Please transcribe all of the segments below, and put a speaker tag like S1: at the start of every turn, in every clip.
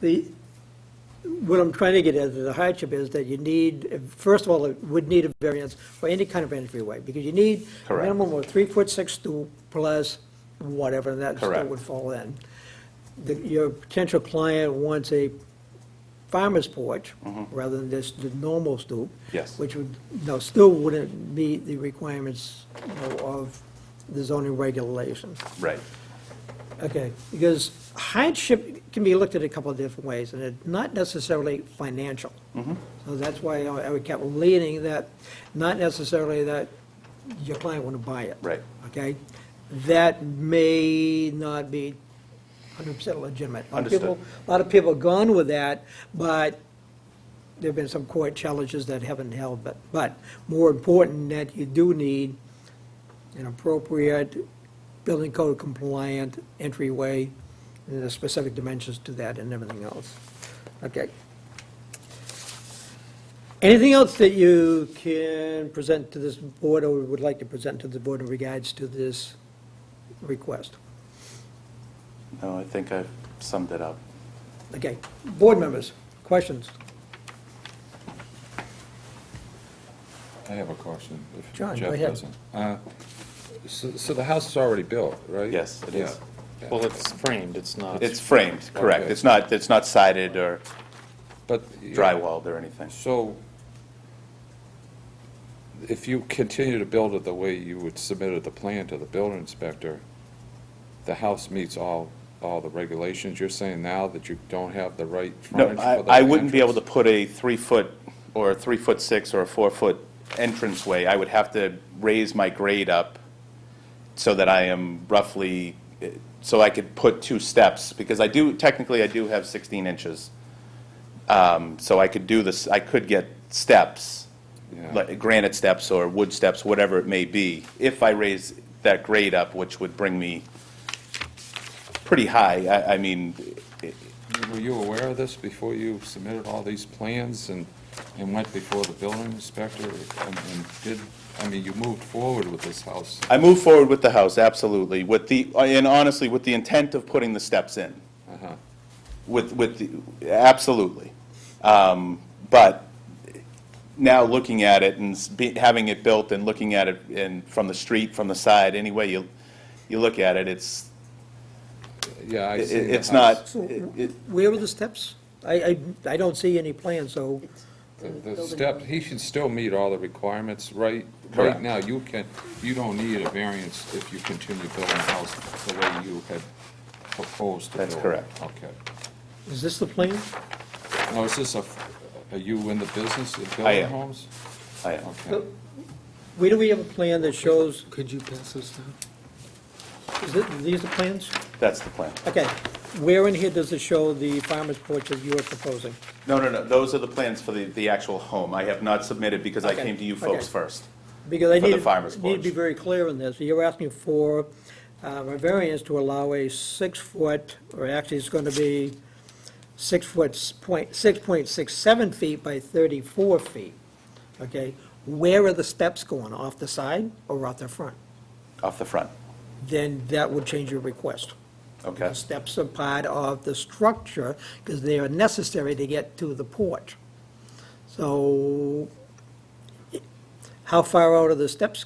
S1: The, what I'm trying to get at, the hardship is that you need, first of all, it would need a variance for any kind of entryway, because you need a
S2: Correct.
S1: minimum of three foot six stoop plus whatever, and that still
S2: Correct.
S1: would fall in. The- Your potential client wants a farmer's porch rather than just the normal stoop.
S2: Mm-hmm. Yes.
S1: Which would, no, still wouldn't meet the requirements you know, of the zoning regulations.
S2: Right,
S1: Okay, because hardship can be looked at a couple of different ways, and it's not necessarily financial. So that's why I I kept leaning that, not necessarily that your client want to buy it.
S2: Right.
S1: Okay? That may not be 100% legitimate. A lot of people-
S2: Understood.
S1: A lot of people have gone with that, but there've been some court challenges that haven't held, but, but more important that you do need an appropriate building code compliant entryway, and the specific dimensions to that and everything else. Okay. Anything else that you can present to this board or would like to present to the board in regards to this request?
S2: no, I think I've summed it up.
S1: Okay, board members, questions?
S3: I have a question. if
S1: John, go
S3: Jeff
S1: ahead.
S3: doesn't. Uh, So, so the house is already built, right?
S2: Yes, it is.
S3: Yeah.
S4: Well, it's framed, it's not.
S2: It's framed, correct.
S3: Okay.
S2: It's not, it's not sided or
S3: But. you-
S2: drywalled or anything.
S3: So if you continue to build it the way you would submitted the plan to the building inspector, the house meets all, all the regulations. You're saying now that you don't have the right
S2: No,
S3: frontage for the
S2: I, I wouldn't be able to
S3: entrance?
S2: put a three-foot or a three-foot six or a four-foot entranceway. I would have to raise my grade up so that I am roughly, so I could put two steps, because I do, technically, I do have 16 inches. Um, So I could do this, I could get steps,
S3: Yeah.
S2: like granite steps or wood steps, whatever it may be, if I raise that grade up, which would bring me pretty high. I, I mean,
S3: Were you aware of this before you submitted all these plans and, and went before the building inspector and and did, I mean, you moved forward with this house?
S2: I move forward with the house, absolutely, with the, and honestly, with the intent of putting the steps in. Uh-huh. With, with, the absolutely. Um, But now looking at it and s- be- having it built and looking at it and from the street, from the side, any way you, you look at it, it's,
S3: Yeah, I
S2: it-
S3: seen the
S2: it's
S3: house.
S2: not,
S1: So
S2: it- it-
S1: where are the steps? I, I, I don't see any plan, so,
S3: The the step, he should still meet all the requirements, right?
S2: Correct.
S3: Right now, you can, you don't need a variance if you continue building the house the way you had proposed to build.
S2: That's
S3: it.
S2: correct.
S3: Okay.
S1: is this the plan?
S3: Now, is this a, are you in the business of
S2: I
S3: building
S2: am.
S3: homes?
S2: I-
S3: Okay.
S1: Where do we have a plan that shows,
S5: Could you pass this down?
S1: is it, these the plans?
S2: that's the plan.
S1: Okay, where in here does it show the farmer's porch that you are proposing?
S2: No, no, no, those are the plans for the, the actual home. I have not submitted because I
S1: Okay,
S2: came to you
S1: okay.
S2: folks first.
S1: Because I
S2: For the
S1: need,
S2: farmer's
S1: need to be
S2: porch.
S1: very clear on this. You're asking for uh, a variance to allow a six-foot, or actually it's going to be six foot, s- point, six point six seven feet by thirty-four feet, okay? Where are the steps going, off the side or off the front?
S2: Off the front,
S1: Then that would change your request.
S2: okay?
S1: The steps are part of the structure, because they are necessary to get to the porch. So how far out are the steps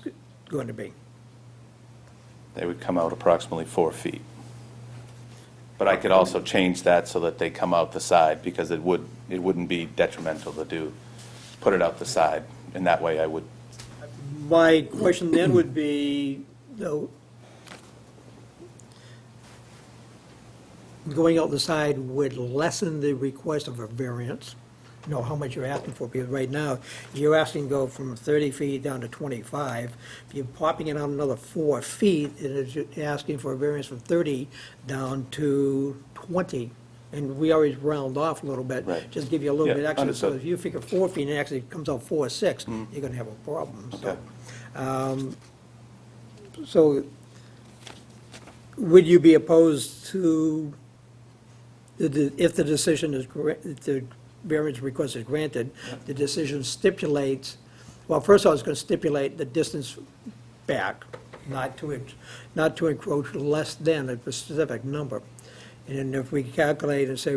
S1: going to be?
S2: They would come out approximately four feet. But I could also change that so that they come out the side, because it would, it wouldn't be detrimental to do, put it out the side, and that way I would,
S1: My question then would be, though, going out the side would lessen the request of a variance, you know, how much you're asking for, because right now, you're asking to go from 30 feet down to 25. If you're popping it on another four feet, it is you're asking for a variance from 30 down to 20. And we always round off a little bit.
S2: Right.
S1: Just give you a little
S2: Yeah,
S1: bit extra. So
S2: understood. Mm-hmm.
S1: if you figure four feet and it actually comes out four or six, you're gonna have a problem, so.
S2: Okay.
S1: So would you be opposed to, the- the- if the decision is, gra- if the variance request is granted, the decision stipulates, well, first of all, it's going to stipulate the distance back, not to, en- not to encroach less than a specific number. And then if we calculate and say